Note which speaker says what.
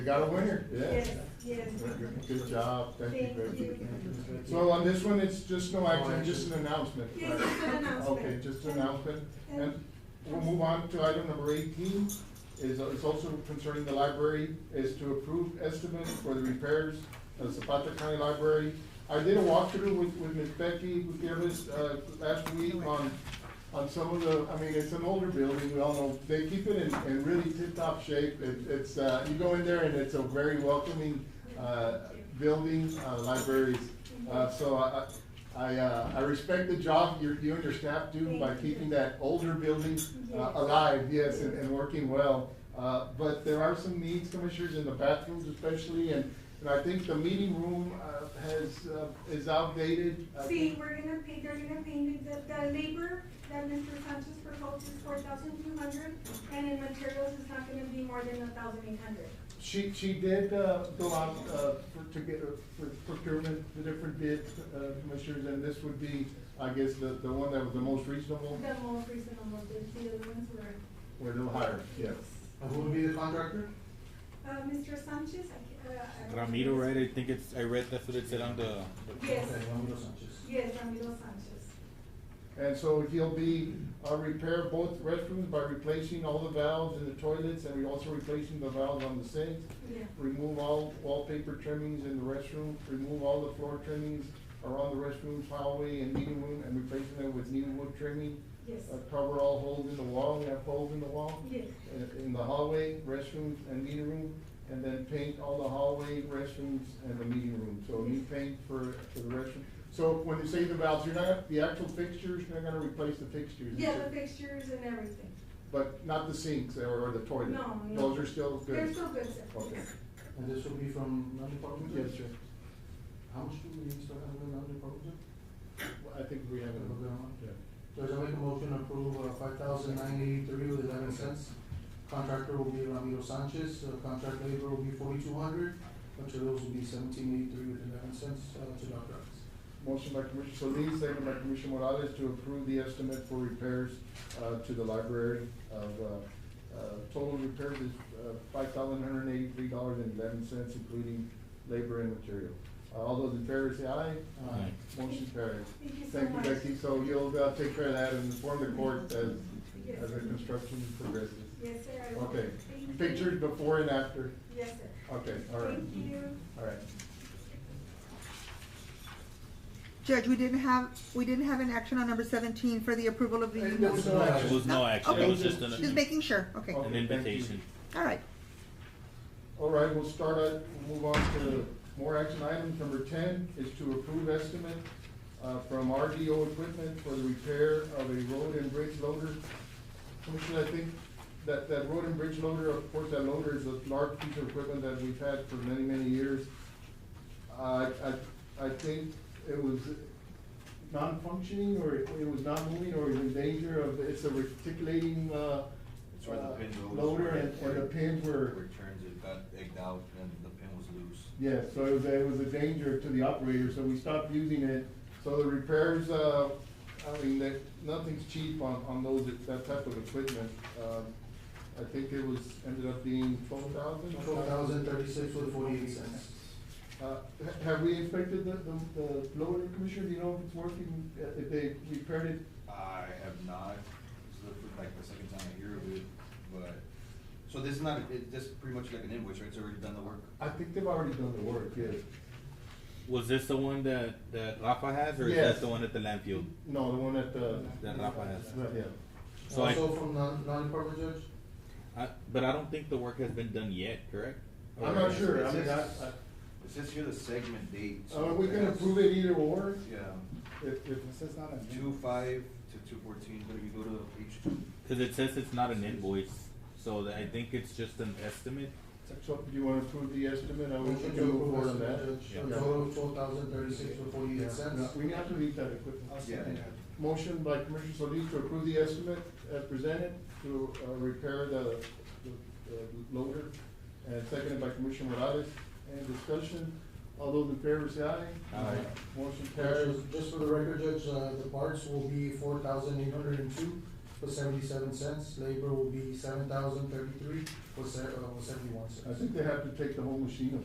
Speaker 1: We got a winner, yeah.
Speaker 2: Yes, yes.
Speaker 1: Good job, thank you
Speaker 2: Thank
Speaker 1: very
Speaker 2: you.
Speaker 1: much. So on this one, it's just no action, just an announcement,
Speaker 2: Yes,
Speaker 1: right?
Speaker 2: it's an announcement.
Speaker 1: Okay, just an announcement,
Speaker 2: And-
Speaker 1: and we'll move on to item number eighteen, is, is also concerning the library, is to approve estimate for the repairs of Zapata County Library. I did a walkthrough with, with Ms. Becky Gutierrez, uh, last week on, on some of the, I mean, it's an older building, we all know, they keep it in, in really tip-top shape, it, it's, uh, you go in there and it's a very welcoming, uh, building, uh, libraries. Uh, so I, I, I, uh, I respect the job you, you and your staff do by
Speaker 2: Thank you.
Speaker 1: keeping that older building uh,
Speaker 2: Yes.
Speaker 1: alive, yes, and, and working well. Uh, but there are some needs, commissioners, in the bathrooms especially, and, and I think the meeting room, uh, has, uh, is outdated. I
Speaker 2: See,
Speaker 1: think-
Speaker 2: we're gonna pay, they're gonna pay me the, the labor that Mr. Sanchez proposed is four thousand two hundred, and in materials it's not gonna be more than a thousand eight hundred.
Speaker 1: She, she did, uh, go out, uh, for, to get, uh, for procurement, the different bids, uh, commissioners, and this would be, I guess, the, the one that was the most reasonable,
Speaker 2: The most reasonable, the, the other ones were,
Speaker 1: or a little higher, yes.
Speaker 3: And Who would be the contractor?
Speaker 2: uh, Mr. Sanchez, I, ca- uh. I-
Speaker 4: Ramiro, right? I think it's, I read that's what it said on the. the-
Speaker 2: Yes,
Speaker 3: Okay, Ramiro Sanchez.
Speaker 2: yes, Ramiro Sanchez.
Speaker 1: And so he'll be, uh, repair both restrooms by replacing all the valves in the toilets, and we also replacing the valves on the sinks.
Speaker 2: Yeah.
Speaker 1: Remove all wallpaper trimmings in the restroom, remove all the floor trimmings around the restrooms, hallway, and meeting room, and replacing them with new wood trimming.
Speaker 2: Yes,
Speaker 1: Uh, cover all holes in the wall, we have holes in the wall,
Speaker 2: yes,
Speaker 1: uh, in the hallway, restrooms, and meeting room, and then paint all the hallway, restrooms, and the meeting room, so new paint for, for the restroom. So when you say the valves, you're not, the actual fixtures, you're not gonna replace the fixtures.
Speaker 2: yeah, the pictures and everything.
Speaker 1: But not the sinks or, or the toilet?
Speaker 2: No, no.
Speaker 1: Those are still good?
Speaker 2: They're so good, sir.
Speaker 1: Okay,
Speaker 3: And this will be from non-departmental?
Speaker 1: yes, sir.
Speaker 3: How much do we start out with non-departmental?
Speaker 1: Well, I think we have it. Yeah.
Speaker 3: Judge, I make a motion to approve five thousand nine eighty-three with eleven cents. Contractor will be Ramiro Sanchez, Uh, contract labor will be forty-two hundred, materials will be seventeen eighty-three with eleven cents uh, to Doc Rivers.
Speaker 1: Motion by Commissioner Solis, second by Commissioner Morales to approve the estimate for repairs, uh, to the library of, uh, uh, total repairs is, uh, five thousand one hundred eighty-three dollars and eleven cents, including labor and material. Uh, All those in favor say aye.
Speaker 4: Aye.
Speaker 1: Motion carries.
Speaker 2: Thank you so
Speaker 1: Thank you,
Speaker 2: much.
Speaker 1: Becky, so you'll, uh, take care of that and inform the court as,
Speaker 2: Yes.
Speaker 1: as the construction progresses.
Speaker 2: Yes, sir. I will.
Speaker 1: Okay,
Speaker 2: Thank you.
Speaker 1: pictures before and after,
Speaker 2: Yes, sir.
Speaker 1: okay, all right,
Speaker 2: Thank you.
Speaker 1: all right.
Speaker 5: Judge, we didn't have, we didn't have an action on number seventeen for the approval of the.
Speaker 1: And there was no action.
Speaker 4: It was Oh. no action. It
Speaker 5: Okay.
Speaker 4: was just
Speaker 5: Just
Speaker 4: an,
Speaker 5: making sure,
Speaker 1: Okay,
Speaker 5: okay,
Speaker 4: an
Speaker 1: thank you.
Speaker 4: invitation.
Speaker 5: all right.
Speaker 1: All right, we'll start at, we'll move on to more action items. Number ten is to approve estimate, uh, from RDO Equipment for the repair of a road and bridge loader. Commissioner, I think that, that road and bridge loader, of course, that loader is a large piece of equipment that we've had for many, many years. I, I, I think it was non-functioning, or it it was not moving, or it was in danger of, it's a reticulating, uh,
Speaker 6: It's where the
Speaker 1: uh,
Speaker 6: pin goes.
Speaker 1: Loader and, and the pins were.
Speaker 6: Where it turns, it got egged out and the pin was loose.
Speaker 1: Yeah, so it was, it was a danger to the operator, so we stopped using it. So the repairs, uh, I mean, that, nothing's cheap on, on those, that type of equipment. Um, I think it was, ended up being twelve thousand?
Speaker 3: Twelve thousand thirty-six with forty-eight cents.
Speaker 1: Uh, ha- have we inspected the, the, the loader, Commissioner, do you know if it's working, uh, if they repaired it?
Speaker 6: I have not, this is the- like the second time I hear of it, but, so this is not, it, this is pretty much like an invoice, right? It's already done the work.
Speaker 1: I think they've already done the work, yes.
Speaker 4: Was this the one that, that Rafa has or is
Speaker 1: Yes.
Speaker 4: that the one at the land field?
Speaker 1: No, the one at the.
Speaker 4: That Rafa has.
Speaker 1: Yeah.
Speaker 4: So I,
Speaker 3: Also from non- non-departmental, Judge?
Speaker 4: I, but I don't think the work has been done yet, correct?
Speaker 1: I'm
Speaker 4: Or-
Speaker 1: not sure, I mean, I,
Speaker 6: It says here the segment date.
Speaker 1: I,
Speaker 6: so
Speaker 1: uh, we can
Speaker 6: that's-
Speaker 1: approve it either or,
Speaker 6: Yeah,
Speaker 1: if, if it says not a.
Speaker 6: two five to two fourteen, but if you go to page two,
Speaker 4: Cause it says it's not an invoice, so that I think it's just an estimate.
Speaker 1: So, do you wanna approve the estimate, I would
Speaker 3: Motion to
Speaker 1: do
Speaker 3: approve
Speaker 1: more
Speaker 3: as
Speaker 1: than that.
Speaker 3: Judge,
Speaker 1: Yeah.
Speaker 3: a total of twelve thousand thirty-six with
Speaker 1: Yeah.
Speaker 3: forty-eight
Speaker 1: No,
Speaker 3: cents.
Speaker 1: We have to leave that equipment.
Speaker 6: yeah.
Speaker 1: Motion by Commissioner Solis to approve the estimate as presented to, uh, repair the, the the loader, and seconded by Commissioner Morales. Any discussion? All those in favor say aye.
Speaker 4: Aye.
Speaker 1: Motion
Speaker 3: Judge,
Speaker 1: carries.
Speaker 3: Just for the record, Judge, uh, the parts will be four thousand eight hundred and two with seventy-seven cents. Labor will be seven thousand thirty-three with se- uh, with seventy-one cents.
Speaker 1: I think they have to take the whole machine